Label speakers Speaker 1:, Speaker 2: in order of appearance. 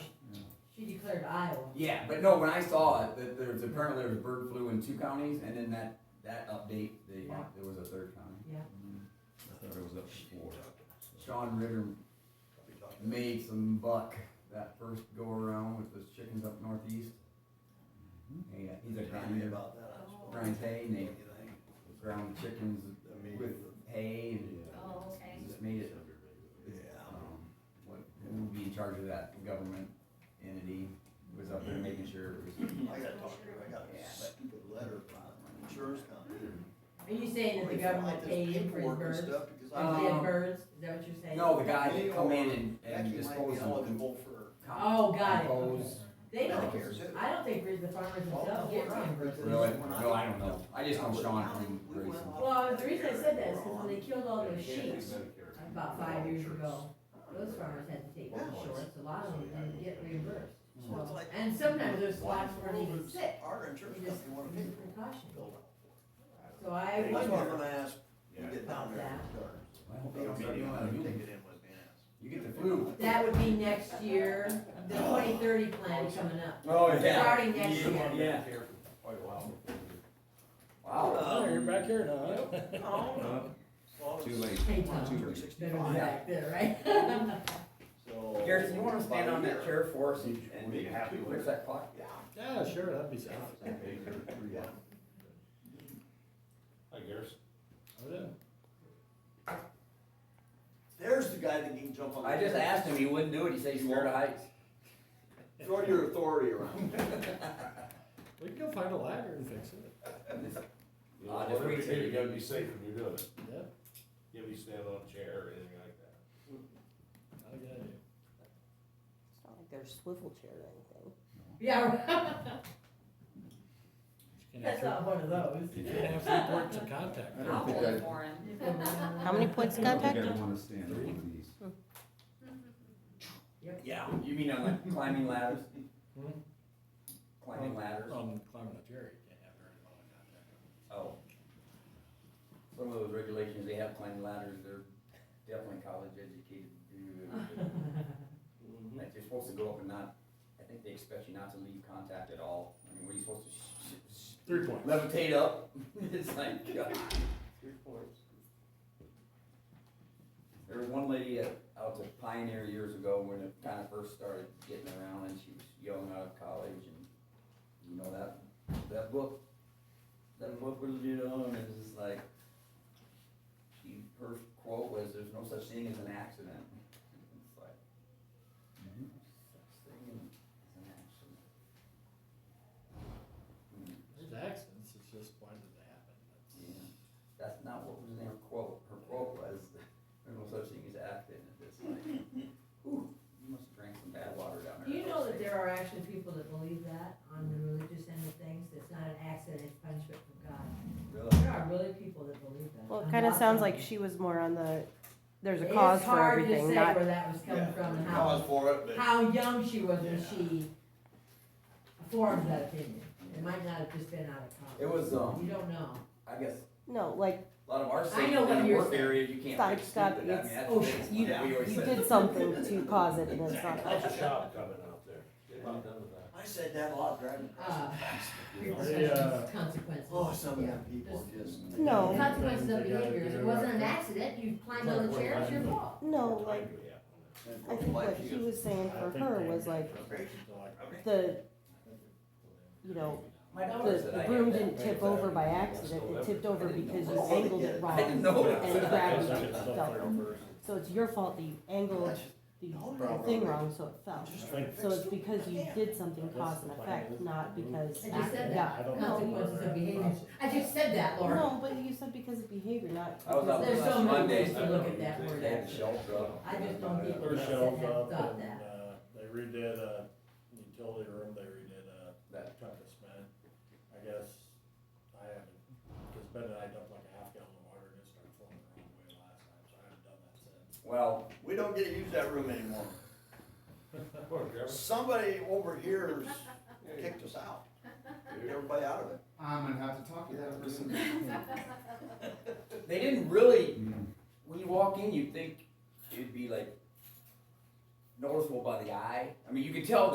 Speaker 1: clear to Iowa.
Speaker 2: Yeah, but no, when I saw it, that there was, apparently there was bird flu in two counties, and then that, that update, they,
Speaker 1: Yeah.
Speaker 2: there was a third county.
Speaker 1: Yeah.
Speaker 3: I thought it was up to four.
Speaker 2: Sean Ritter made some buck that first go around with those chickens up northeast.
Speaker 4: Mm-hmm.
Speaker 2: He, uh, he's a grinder,
Speaker 4: about that. I suppose.
Speaker 2: grinds hay, and they
Speaker 4: You think?
Speaker 2: ground chickens
Speaker 4: I mean,
Speaker 2: with hay, and
Speaker 1: Oh, okay.
Speaker 2: just made it,
Speaker 4: Yeah.
Speaker 2: um, what, who would be in charge of that government entity was up there making sure it was.
Speaker 4: I gotta talk to her, I got
Speaker 2: Yeah,
Speaker 4: a
Speaker 2: but-
Speaker 4: stupid letter from an insurance company.
Speaker 1: Are you saying that the
Speaker 4: They filed
Speaker 1: government
Speaker 4: this
Speaker 1: paid for his
Speaker 4: paperwork and
Speaker 1: birds?
Speaker 4: stuff Because
Speaker 1: His
Speaker 4: I.
Speaker 2: Um,
Speaker 1: dead birds, is that what you're saying?
Speaker 2: No, the guy that come in and, and
Speaker 4: Actually, might be
Speaker 2: dispose of them.
Speaker 4: eligible for.
Speaker 1: Oh, got it,
Speaker 2: Compose.
Speaker 1: They don't,
Speaker 4: Medicare, too.
Speaker 1: I don't think the farmers
Speaker 4: Well,
Speaker 1: themselves get
Speaker 4: right,
Speaker 1: birds.
Speaker 4: but
Speaker 2: Really?
Speaker 4: when
Speaker 2: No, I don't know. I just know Sean from Grayson.
Speaker 1: Well, the reason I said that is because when they killed all those sheep about five years ago, those farmers had to take
Speaker 4: Yeah.
Speaker 1: insurance, a lot of them didn't get reimbursed.
Speaker 4: Mm. So it's like-
Speaker 1: And sometimes those flocks
Speaker 4: Why
Speaker 1: weren't
Speaker 4: in the
Speaker 1: even
Speaker 4: world
Speaker 1: sick,
Speaker 4: does Our
Speaker 1: they
Speaker 4: insurance
Speaker 1: just
Speaker 4: company wanna pay
Speaker 1: used
Speaker 4: for it.
Speaker 1: precaution.
Speaker 4: Build up.
Speaker 1: So I
Speaker 4: That's what I'm
Speaker 1: wonder,
Speaker 4: gonna ask, when we get down there.
Speaker 1: About
Speaker 2: I hope
Speaker 4: They
Speaker 2: they don't start
Speaker 4: don't mean you
Speaker 2: doing that
Speaker 4: wanna
Speaker 2: to
Speaker 4: take
Speaker 2: humans.
Speaker 4: it in with ants.
Speaker 2: You get the flu.
Speaker 1: that would be next year, the twenty thirty plan is coming up.
Speaker 2: Oh,
Speaker 1: Starting next year.
Speaker 2: Yeah. Wow.
Speaker 4: Oh,
Speaker 5: you're back here now,
Speaker 4: No.
Speaker 3: Too late,
Speaker 1: Hey,
Speaker 3: too
Speaker 1: Tom,
Speaker 3: late.
Speaker 1: better be
Speaker 4: Sixty-five,
Speaker 1: back there, right?
Speaker 4: so.
Speaker 2: Garrison, you wanna stand on that chair for us and, and
Speaker 3: Be happy with
Speaker 2: fix that clock?
Speaker 4: Yeah.
Speaker 5: Yeah, sure, that'd be sound.
Speaker 4: Yeah.
Speaker 3: Hi, Garrison.
Speaker 5: Oh, yeah.
Speaker 4: There's the guy that can jump on.
Speaker 2: I just asked him, he wouldn't do it, he said he's scared of heights.
Speaker 4: Throw your authority around.
Speaker 5: We can go find a ladder and fix it.
Speaker 6: You
Speaker 2: Ah,
Speaker 6: know,
Speaker 2: just
Speaker 6: whatever you
Speaker 2: reach
Speaker 6: do,
Speaker 2: it.
Speaker 6: you gotta be safe when you're doing it.
Speaker 5: Yeah,
Speaker 6: You gotta be standing on a chair or anything like that.
Speaker 5: not a good idea.
Speaker 7: It's not like they're swivel chair or anything.
Speaker 1: Yeah,
Speaker 5: Just can't have
Speaker 1: that's not one of those.
Speaker 5: three- You can't have three points of contact.
Speaker 3: I don't think I, I
Speaker 7: How many points of
Speaker 3: don't think
Speaker 7: contact?
Speaker 3: I'd wanna stand on one of these.
Speaker 2: Yeah, you mean on like climbing ladders?
Speaker 5: Hmm?
Speaker 2: Climbing ladders?
Speaker 5: On climbing up here, you can't have very long contact.
Speaker 2: Oh. Some of those regulations, they have climbing ladders, they're definitely college educated dudes.
Speaker 5: Mm-hmm.
Speaker 2: Like, you're supposed to go up and not, I think they expect you not to leave contact at all. I mean, what are you supposed to sh- sh- sh-
Speaker 5: Three points.
Speaker 2: levitate up? It's like, God.
Speaker 4: Three points.
Speaker 2: There was one lady at, out to Pioneer years ago when it kind of first started getting around and she was young out of college and you know that, that book, that book was, you know, and it's just like, she, her quote was, there's no such thing as an accident. It's like, such thing as an accident. Hmm.
Speaker 5: There's accidents, it's just why did they happen?
Speaker 2: Yeah, that's not what was in her quote, her quote was, there's no such thing as accident, it's like, ooh, you must have drank some bad water down
Speaker 1: Do
Speaker 2: there.
Speaker 1: you know that there are actually people that believe that on the religious end of things, that's not an accident, it's punishment from God?
Speaker 2: Really?
Speaker 1: There are really people that believe that.
Speaker 7: Well, it
Speaker 1: I'm
Speaker 7: kind of
Speaker 1: not
Speaker 7: sounds
Speaker 1: saying-
Speaker 7: like she was more on the, there's a
Speaker 1: It's
Speaker 7: cause for
Speaker 1: hard to
Speaker 7: everything,
Speaker 1: say
Speaker 7: not,
Speaker 1: Where that was coming from and
Speaker 4: Cause
Speaker 1: how,
Speaker 4: for it, but
Speaker 1: how young she was when
Speaker 4: Yeah.
Speaker 1: she formed that opinion. It might not have just been out of college.
Speaker 2: It was, um,
Speaker 1: You don't know.
Speaker 2: I guess,
Speaker 7: no, like,
Speaker 2: a lot of our safety
Speaker 1: know what
Speaker 2: in the
Speaker 1: you're
Speaker 2: work
Speaker 1: saying.
Speaker 2: area, you can't
Speaker 7: Stop,
Speaker 2: fix
Speaker 7: stop,
Speaker 2: stupid, I mean,
Speaker 7: it's-
Speaker 2: that's the
Speaker 1: oh,
Speaker 2: biggest
Speaker 1: you-
Speaker 2: one that we always
Speaker 7: you
Speaker 2: said.
Speaker 7: did something to cause it, and then it's not
Speaker 6: That's
Speaker 7: that.
Speaker 6: a shop coming out there. They're not done with that.
Speaker 4: I said that a lot driving across.
Speaker 1: Uh,
Speaker 6: You know?
Speaker 5: They, uh,
Speaker 1: consequences.
Speaker 4: Oh, some of them people just.
Speaker 7: No.
Speaker 1: Consequences of
Speaker 5: They gotta
Speaker 1: behavior. If
Speaker 5: do
Speaker 1: It
Speaker 5: it
Speaker 1: wasn't
Speaker 5: right.
Speaker 1: an accident. You climbed on the chair, it's your fault.
Speaker 7: No,
Speaker 6: Time
Speaker 7: like,
Speaker 6: do we have on that?
Speaker 7: I think what he was saying for her was like, the, you know,
Speaker 2: My daughter
Speaker 7: the,
Speaker 2: said
Speaker 7: the
Speaker 2: I
Speaker 7: broom
Speaker 2: had that
Speaker 7: didn't
Speaker 2: thing
Speaker 7: tip
Speaker 2: that-
Speaker 7: over by accident, it tipped over because you angled it
Speaker 2: I didn't
Speaker 7: wrong.
Speaker 2: know
Speaker 7: And
Speaker 2: that.
Speaker 7: gravity
Speaker 5: It's still
Speaker 7: fell.
Speaker 5: clear first.
Speaker 7: So it's your fault that you angled the the thing wrong, so it fell. So it's because you did something cause and effect, not because.
Speaker 1: I just said
Speaker 7: Yeah.
Speaker 5: I
Speaker 1: that.
Speaker 5: don't know
Speaker 1: Consequences
Speaker 5: where
Speaker 1: of
Speaker 5: that
Speaker 1: behavior.
Speaker 5: process-
Speaker 1: I just said that, Laura.
Speaker 7: No, but you said because of behavior, not.
Speaker 2: I was out
Speaker 7: because-
Speaker 1: There's
Speaker 2: last
Speaker 1: so many
Speaker 2: Monday.
Speaker 1: ways to look at that word.
Speaker 2: They had the shelves up.
Speaker 1: I just don't get
Speaker 5: Their
Speaker 1: Yes, it
Speaker 5: shelves
Speaker 1: has
Speaker 5: up
Speaker 1: done
Speaker 5: and,
Speaker 1: that.
Speaker 5: uh, they redid a utility room, they redid a
Speaker 2: That-
Speaker 5: chunk of cement. I guess I haven't, cause Ben and I dumped like a half gallon of water and it started flowing the wrong way last time, so I haven't done that since.
Speaker 2: Well,
Speaker 4: We don't get to use that room anymore.
Speaker 6: Poor Trevor.
Speaker 4: Somebody over here's kicked us out, kicked everybody out of it.
Speaker 8: I'm gonna have to talk to that person.
Speaker 2: they didn't really when you walk in, you'd think it'd be like noticeable by the eye. I mean, you could tell